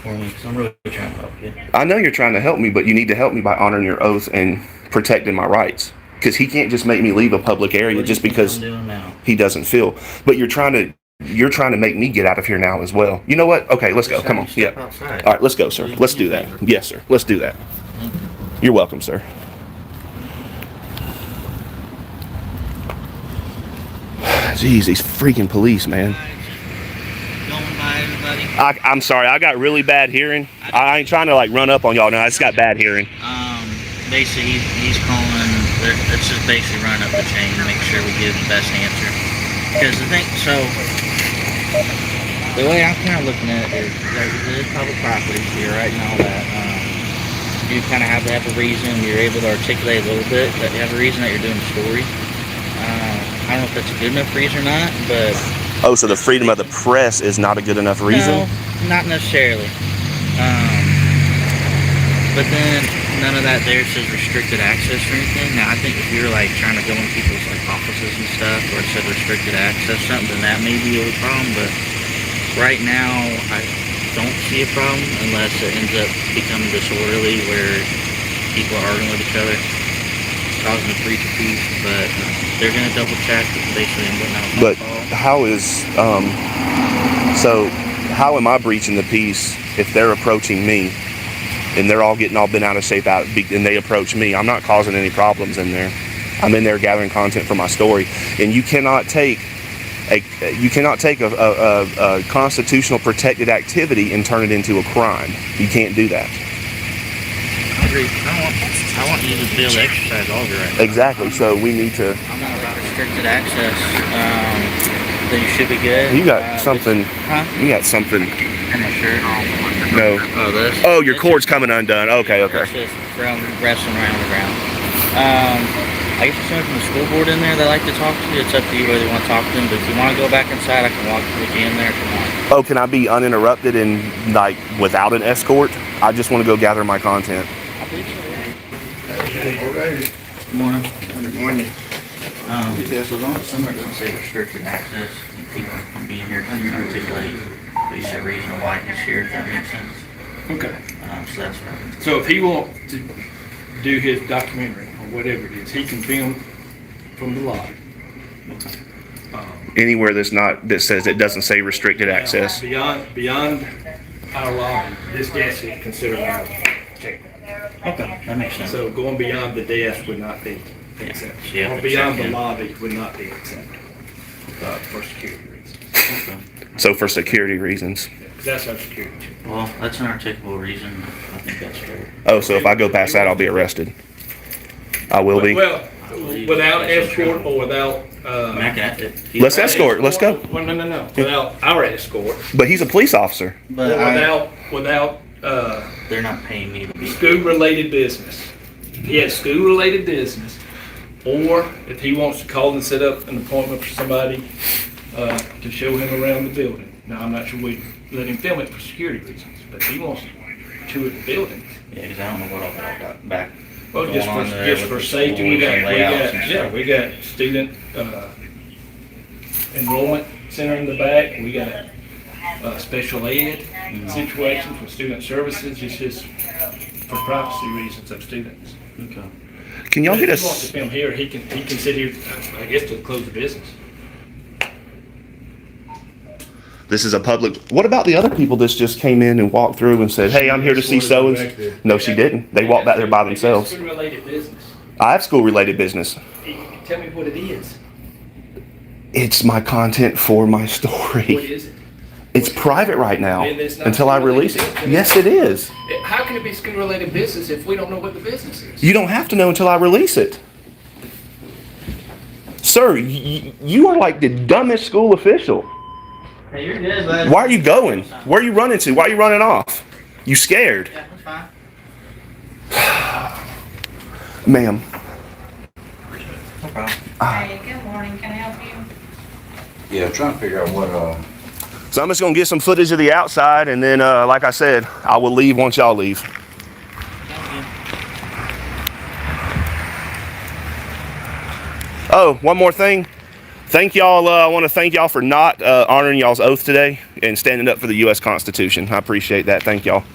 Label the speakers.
Speaker 1: for me because I'm really trying to help you.
Speaker 2: I know you're trying to help me, but you need to help me by honoring your oath and protecting my rights. Because he can't just make me leave a public area
Speaker 1: What do
Speaker 2: just
Speaker 1: you think
Speaker 2: because
Speaker 1: I'm doing now.
Speaker 2: he doesn't feel. But you're trying to you're trying to make me get out of here now as well. You know what? Okay, let's go. Come on.
Speaker 1: Step
Speaker 2: Yeah.
Speaker 1: outside.
Speaker 2: All right, let's go, sir. Let's do that. Yes, sir. Let's do that. You're welcome, sir. Jeez, these freaking police, man.
Speaker 3: Going by everybody.
Speaker 2: I, I'm sorry, I got really bad hearing. I ain't trying to like run up on y'all now. I just got bad hearing.
Speaker 3: Um, basically, he's, he's calling. Let's just basically run up the chain and make sure we give the best answer. Because the thing, so the way I'm kind of looking at it is there's, there's public property here, right, and all that. Um, you kind of have to have a reason. You're able to articulate a little bit that you have a reason that you're doing the story. Uh, I don't know if that's a good enough reason or not, but
Speaker 2: Oh, so the freedom of the press is not a good enough
Speaker 3: No,
Speaker 2: reason?
Speaker 3: not necessarily. Um, but then none of that there says restricted access or anything. Now I think if you're like trying to go in people's like offices and stuff, or it said restricted access something, then that may be a little problem. But right now, I don't see a problem unless it ends up becoming disorderly where people are arguing with each other, causing a breach of peace. But um, they're gonna double check basically and whatnot.
Speaker 2: But how is um so how am I breaching the peace if they're approaching me and they're all getting all bent out of shape out be- and they approach me? I'm not causing any problems in there. I'm in there gathering content for my story, and you cannot take a you cannot take a, a, a, a constitutional protected activity and turn it into a crime. You can't do that.
Speaker 3: I agree. I want, I want you to be able to exercise all your rights.
Speaker 2: Exactly. So we need to.
Speaker 3: I'm not about restricted access. Um, then you should be good.
Speaker 2: You
Speaker 3: Uh,
Speaker 2: got
Speaker 3: but-
Speaker 2: something.
Speaker 3: Huh?
Speaker 2: You got something.
Speaker 3: I'm not sure.
Speaker 2: No.
Speaker 3: Oh, this.
Speaker 2: Oh, your cord's coming undone. Okay. Okay.
Speaker 3: It's just from wrestling around the ground. Um, I guess there's someone from the school board in there that like to talk to you. It's up to you whether you want to talk to them. But if you want to go back inside, I can walk with you in there if you want.
Speaker 2: oh, can I be uninterrupted and like without an escort? I just want to go gather my content.
Speaker 3: I believe so.
Speaker 1: Good
Speaker 3: Morning.
Speaker 1: morning.
Speaker 3: Um,
Speaker 1: Yes, as long as somebody
Speaker 3: Don't say restricted access, and people from being here, can articulate, but you said reason why he's here, if that makes sense.
Speaker 4: Okay,
Speaker 3: Um, so that's right.
Speaker 4: so if he wants to do his documentary or whatever it is, he can film from the lobby. Um,
Speaker 2: Anywhere that's not that says it doesn't say restricted access.
Speaker 4: Beyond, beyond our lobby, this desk is considered our checkpoint.
Speaker 3: Okay, that makes sense.
Speaker 4: So going beyond the desk would not be accepted.
Speaker 3: Yeah,
Speaker 4: Or beyond
Speaker 3: yeah.
Speaker 4: the lobby would not be accepted, uh, for security reasons.
Speaker 3: Okay.
Speaker 2: So for security reasons.
Speaker 4: Yeah, 'cause that's our security. check.
Speaker 3: Well, that's an articulable reason. I think that's fair.
Speaker 2: Oh, so if I go past that, I'll be arrested. I will be.
Speaker 4: Well, without escort or without,
Speaker 3: I mean, I
Speaker 4: uh.
Speaker 3: can, if you-
Speaker 2: Let's escort. Let's go.
Speaker 4: Well, no, no, no, without our escort,
Speaker 2: But he's a police officer.
Speaker 4: or
Speaker 3: But I,
Speaker 4: without, without, uh,
Speaker 3: they're not paying me to be.
Speaker 4: school-related business. He has school-related business, or if he wants to call and set up an appointment for somebody uh, to show him around the building. Now, I'm not sure we let him film it for security reasons, but if he wants to tour the building.
Speaker 3: Yeah, cause I don't know what all that got back.
Speaker 4: Well, just
Speaker 3: going
Speaker 4: for,
Speaker 3: on there
Speaker 4: just
Speaker 3: with
Speaker 4: for
Speaker 3: the
Speaker 4: safety, we
Speaker 3: schools
Speaker 4: got,
Speaker 3: and
Speaker 4: we
Speaker 3: layouts and
Speaker 4: got, yeah,
Speaker 3: stuff.
Speaker 4: we got student, uh, enrollment center in the back, we got, uh, special ed situations with student services, it's just for privacy reasons of students.
Speaker 3: Okay.
Speaker 2: Can y'all
Speaker 4: If
Speaker 2: get
Speaker 4: he wants to
Speaker 2: us?
Speaker 4: film here, he can, he can sit here, I guess, to close the business.
Speaker 2: This is a public. What about the other people that just came in and walked through and said, "Hey, I'm here to see so and." No, she didn't. They walked back there by themselves.
Speaker 4: Related business.
Speaker 2: I have school-related business.
Speaker 4: Tell me what it is.
Speaker 2: It's my content for my story.
Speaker 4: What is it?
Speaker 2: It's private right now
Speaker 4: Then it's not
Speaker 2: until I
Speaker 4: really
Speaker 2: release it.
Speaker 4: business.
Speaker 2: Yes, it is.
Speaker 4: How can it be school-related business if we don't know what the business is?
Speaker 2: You don't have to know until I release it. Sir, y- y- you are like the dumbest school official.
Speaker 3: Hey, you're good, bud.
Speaker 2: Why are you going? Where are you running to? Why are you running off? You scared?
Speaker 3: Yeah, that's fine.
Speaker 2: Ma'am,
Speaker 3: No problem.
Speaker 5: Hey, good morning, can I help you?
Speaker 6: Yeah, I'm trying to figure out what, uh,
Speaker 2: so I'm just going to get some footage of the outside and then, uh, like I said, I will leave once y'all leave. Oh, one more thing. Thank y'all. Uh, I want to thank y'all for not uh, honoring y'all's oath today. and standing up for the U.S. Constitution. I appreciate that. Thank y'all.